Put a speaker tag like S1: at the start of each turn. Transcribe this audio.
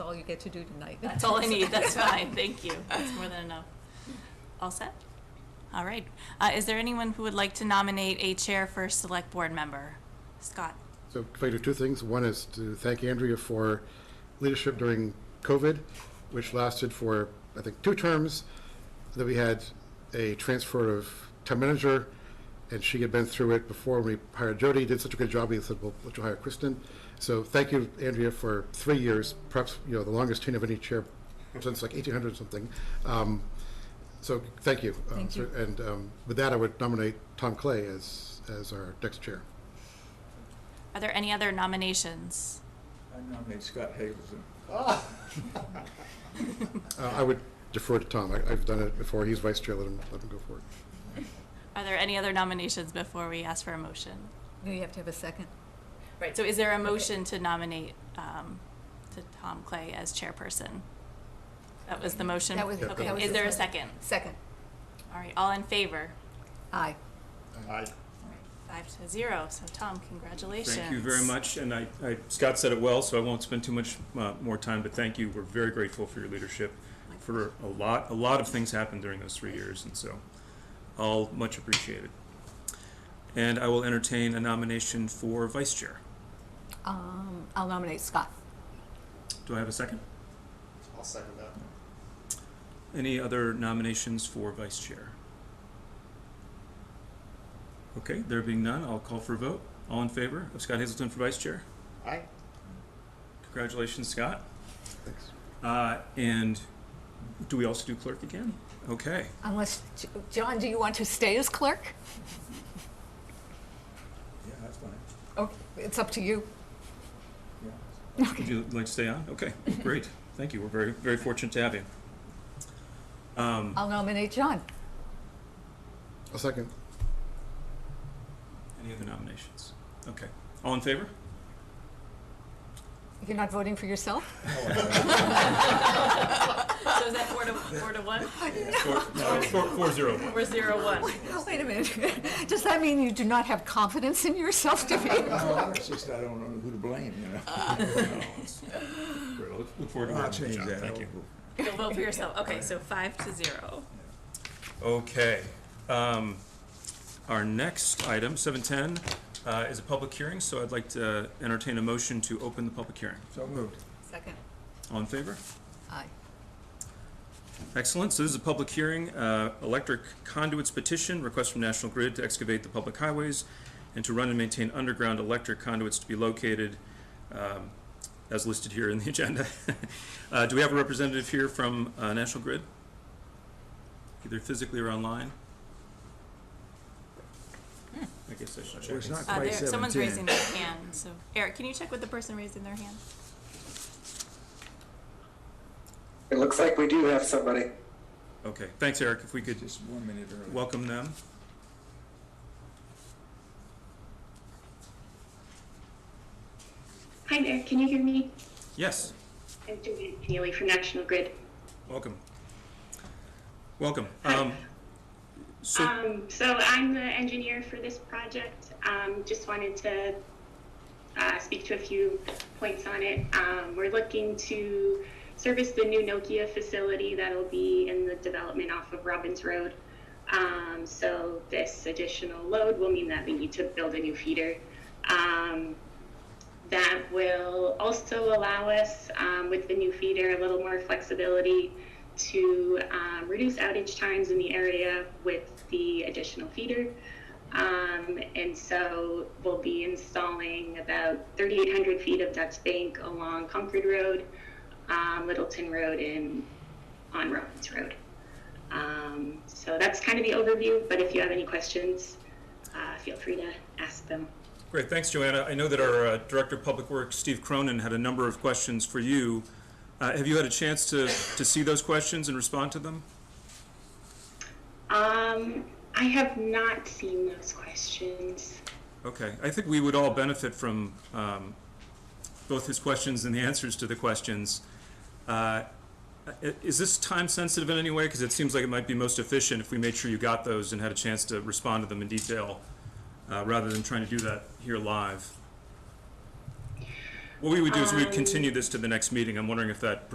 S1: you get to do tonight.
S2: That's all I need, that's fine, thank you, that's more than enough. All set? All right, uh, is there anyone who would like to nominate a chair for select board member? Scott?
S3: So can I do two things? One is to thank Andrea for leadership during COVID, which lasted for, I think, two terms. Then we had a transfer of town manager, and she had been through it before we hired Jody, did such a good job, we said, well, let's hire Kristen. So thank you, Andrea, for three years, perhaps, you know, the longest tenure of any chair since like eighteen hundred something. Um, So, thank you. Um,
S1: Thank you.
S3: so- And um, with that, I would nominate Tom Clay as, as our next chair.
S2: Are there any other nominations?
S4: I nominate Scott Hazelton.
S3: Uh, I would defer to Tom. I- I've done it before. He's vice chair. Let him, let him go for it.
S2: Are there any other nominations before we ask for a motion?
S1: No, you have to have a second.
S2: Right, so is there a motion to nominate, um, to Tom Clay as chairperson? That was the motion?
S1: That was-
S3: Yeah,
S2: Okay,
S3: that was
S2: is
S3: the
S2: there a
S1: motion.
S2: second?
S1: Second.
S2: All right, all in favor?
S1: Aye.
S2: Five to zero, so Tom, congratulations.
S5: Thank you very much, and I, I- Scott said it well, so I won't spend too much uh, more time, but thank you. We're very grateful for your leadership, for a lot, a lot of things happened during those three years, and so all much appreciated. And I will entertain a nomination for vice chair.
S1: Um, I'll nominate Scott.
S5: Do I have a second?
S6: I'll second that.
S5: Any other nominations for vice chair? Okay, there being none, I'll call for a vote. All in favor of Scott Hazelton for vice chair?
S6: Aye.
S5: Congratulations, Scott.
S3: Thanks.
S5: Uh, and do we also do clerk again? Okay.
S1: Unless, J- John, do you want to stay as clerk?
S4: Yeah, that's fine.
S1: Oh, it's up to you.
S4: Yeah.
S5: Would you like to stay on? Okay, great. Thank you. We're very, very fortunate to have you. Um,
S1: I'll nominate John.
S3: A second.
S5: any other nominations? Okay. All in favor?
S1: You're not voting for yourself?
S2: So is that four to, four to one,
S5: Four, no, four, four zero one.
S2: or zero one?
S1: Wait a minute. Does that mean you do not have confidence in yourself to be?
S4: Well, it's just I don't know who to blame, you know?
S5: Great. I'll Look look forward to
S4: I'll
S5: working
S4: change
S5: with you, John.
S4: that.
S5: Thank you.
S2: You'll vote for yourself, okay, so five to zero.
S5: Okay. Um, our next item, seven ten, uh, is a public hearing, so I'd like to uh, entertain a motion to open the public hearing.
S4: So moved.
S1: Second.
S5: All in favor?
S1: Aye.
S5: Excellent. So this is a public hearing, uh, electric conduits petition, request from National Grid to excavate the public highways and to run and maintain underground electric conduits to be located, um, as listed here in the agenda. Uh, do we have a representative here from, uh, National Grid? Either physically or online? I guess I should check.
S4: Well, it's not
S2: Uh, there,
S4: quite
S2: someone's
S4: 17.
S2: raising their hand, so Eric, can you check with the person raising their hand?
S6: It looks like we do have somebody.
S5: Okay, thanks, Eric. If we could
S4: Just one minute early.
S5: welcome them.
S7: Hi there, can you hear me?
S5: Yes,
S7: I'm Joanne Neely from National Grid.
S5: welcome. Welcome. Um, so.
S7: Um, so I'm the engineer for this project. Um, just wanted to uh, speak to a few points on it. Um, we're looking to service the new Nokia facility that'll be in the development off of Robbins Road. Um, so this additional load will mean that we need to build a new feeder. Um, that will also allow us um, with the new feeder a little more flexibility to um, reduce outage times in the area with the additional feeder. Um, and so we'll be installing about 3,800 feet of Dutch Bank along Concord Road, um, Littleton Road, and on Robbins Road. Um, so that's kind of the overview, but if you have any questions, uh, feel free to ask them.
S5: Great, thanks, Joanna. I know that our uh, Director of Public Works, Steve Cronin, had a number of questions for you. Uh, Have you had a chance to, to see those questions and respond to them?
S7: Um, I have not seen those questions.
S5: Okay, I think we would all benefit from um, both his questions and the answers to the questions. Uh, i- Is this time-sensitive in any way? Because it seems like it might be most efficient if we made sure you got those and had a chance to respond to them in detail, uh, rather than trying to do that here live. What we would do is we'd continue this to the next meeting. I'm wondering if that